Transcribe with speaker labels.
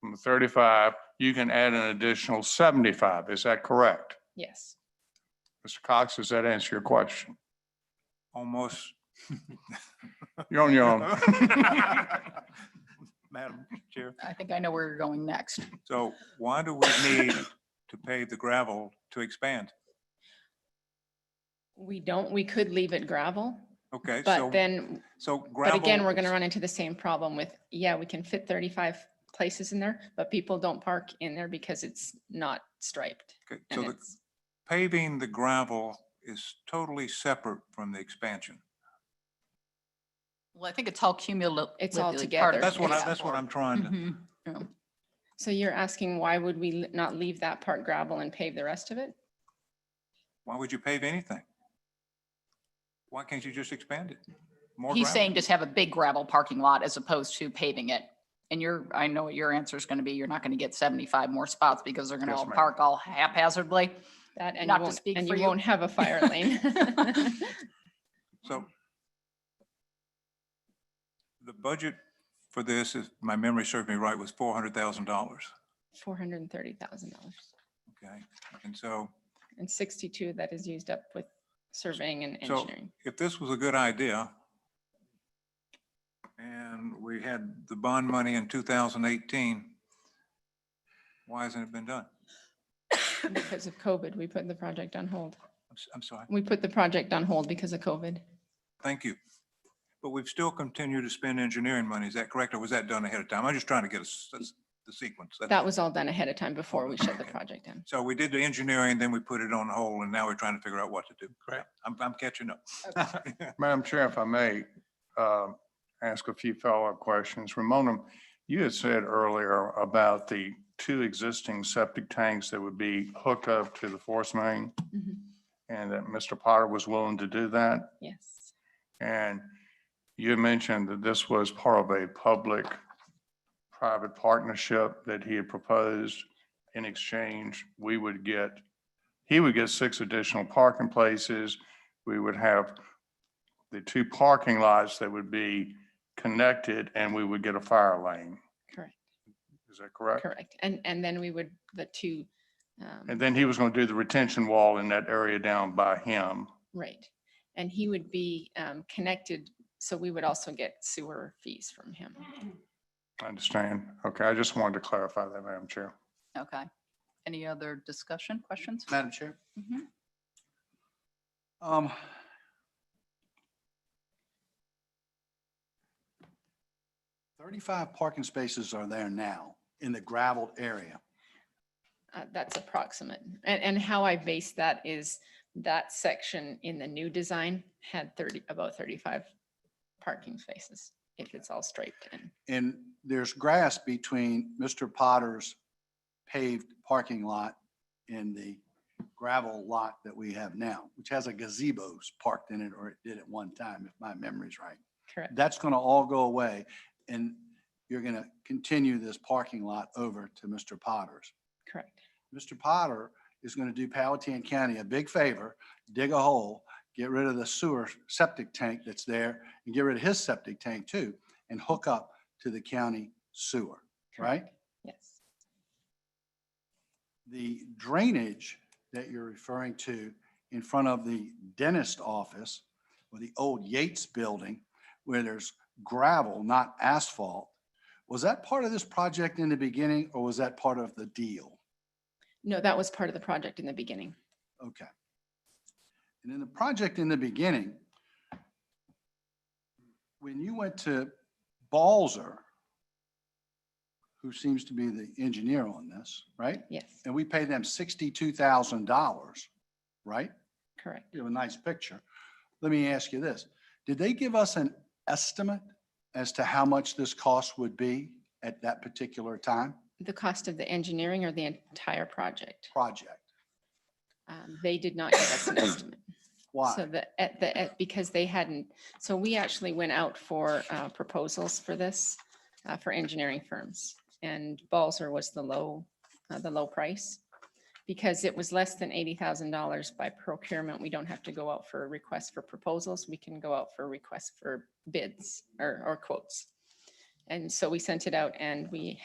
Speaker 1: from the thirty-five, you can add an additional seventy-five. Is that correct?
Speaker 2: Yes.
Speaker 1: Mr. Cox, does that answer your question? Almost. You're on your own.
Speaker 3: Madam Chair,
Speaker 2: I think I know where you're going next.
Speaker 3: so why do we need to pave the gravel to expand?
Speaker 2: We don't, we could leave it gravel,
Speaker 3: Okay,
Speaker 2: but
Speaker 3: so,
Speaker 2: then,
Speaker 3: so
Speaker 2: but
Speaker 3: gravel.
Speaker 2: again, we're going to run into the same problem with, yeah, we can fit 35 places in there, but people don't park in there because it's not striped.
Speaker 3: okay, So
Speaker 2: And
Speaker 3: the
Speaker 2: it's,
Speaker 3: paving the gravel is totally separate from the expansion.
Speaker 4: Well, I think it's all cumulative.
Speaker 2: It's all
Speaker 4: part
Speaker 2: together.
Speaker 4: of
Speaker 3: That's what I,
Speaker 2: Yeah.
Speaker 4: it.
Speaker 3: that's what I'm trying to,
Speaker 4: Mhm.
Speaker 2: um, so you're asking why would we l- not leave that part gravel and pave the rest of it?
Speaker 3: why would you pave anything? Why can't you just expand it? More
Speaker 4: He's
Speaker 3: gravel.
Speaker 4: saying just have a big gravel parking lot as opposed to paving it. And you're, I know what your answer is going to be. You're not going to get 75 more spots because they're going to
Speaker 1: Yes,
Speaker 4: all
Speaker 1: ma'am.
Speaker 4: park all haphazardly.
Speaker 2: That and you
Speaker 4: Not to
Speaker 2: won't,
Speaker 4: speak
Speaker 2: and
Speaker 4: for
Speaker 2: you
Speaker 4: you.
Speaker 2: won't have a fire lane.
Speaker 3: So the budget for this, if my memory serves me right, was four hundred thousand dollars,
Speaker 2: $430,000
Speaker 3: okay? And so
Speaker 2: and 62 of that is used up with surveying and
Speaker 3: So-
Speaker 2: engineering.
Speaker 3: if this was a good idea and we had the bond money in two thousand eighteen, why hasn't it been done?
Speaker 2: Because of COVID, we put the project on hold.
Speaker 3: I'm, s- I'm sorry.
Speaker 2: We put the project on hold because of COVID.
Speaker 3: Thank you. But we've still continued to spend engineering money. Is that correct? Or was that done ahead of time? I'm just trying to get a s- s- the sequence. That's-
Speaker 2: That was all done ahead of time before we shut the project down.
Speaker 3: So we did the engineering, then we put it on hold, and now we're trying to figure out what to do.
Speaker 1: Correct.
Speaker 3: I'm, I'm catching up.
Speaker 1: Madam Chair, if I may, uh, ask a few follow-up questions. Ramona, you had said earlier about the two existing septic tanks that would be hooked up to the force main
Speaker 2: Mhm.
Speaker 1: and that Mr. Potter was willing to do that.
Speaker 2: Yes,
Speaker 1: And you mentioned that this was part of a public-private partnership that he had proposed. In exchange, we would get, he would get six additional parking places. We would have the two parking lots that would be connected and we would get a fire lane.
Speaker 2: correct,
Speaker 1: Is that correct?
Speaker 2: correct. And, and then we would, the two, um,
Speaker 1: And then he was going to do the retention wall in that area down by him.
Speaker 2: right. And he would be um, connected, so we would also get sewer fees from him.
Speaker 1: I understand. Okay, I just wanted to clarify that, Madam Chair.
Speaker 4: Okay. Any other discussion, questions?
Speaker 5: Madam Chair.
Speaker 4: Mhm.
Speaker 5: Um. Thirty-five parking spaces are there now in the gravelled area.
Speaker 2: Uh, That's approximate. And, and how I base that is that section in the new design had 30, about 35 parking spaces, if it's all striped in.
Speaker 5: And there's grass between Mr. Potter's paved parking lot and the gravel lot that we have now, which has a gazebo parked in it, or it did at one time, if my memory's right.
Speaker 2: Correct,
Speaker 5: That's going to all go away, and you're going to continue this parking lot over to Mr. Potter's.
Speaker 2: correct.
Speaker 5: Mr. Potter is going to do Palatine County a big favor, dig a hole, get rid of the sewer septic tank that's there and get rid of his septic tank too and hook up to the county sewer, right?
Speaker 2: correct. Yes.
Speaker 5: The drainage that you're referring to in front of the dentist office or the old Yates building where there's gravel, not asphalt, was that part of this project in the beginning or was that part of the deal?
Speaker 2: No, that was part of the project in the beginning.
Speaker 5: Okay. And in the project in the beginning, when you went to Balzer, who seems to be the engineer on this, right?
Speaker 2: Yes,
Speaker 5: And we paid them sixty-two thousand dollars, right?
Speaker 2: correct.
Speaker 5: You have a nice picture. Let me ask you this. Did they give us an estimate as to how much this cost would be at that particular time,
Speaker 2: The cost of the engineering or the entire project?
Speaker 5: project?
Speaker 2: Um, They did not give us an estimate.
Speaker 5: Why?
Speaker 2: So the, at the, at- because they hadn't, so we actually went out for uh, proposals for this, uh, for engineering firms. And Balzer was the low, uh, the low price. Because it was less than eighty thousand dollars by procurement, we don't have to go out for a request for proposals. We can go out for requests for bids or, or quotes. And so we sent it out and we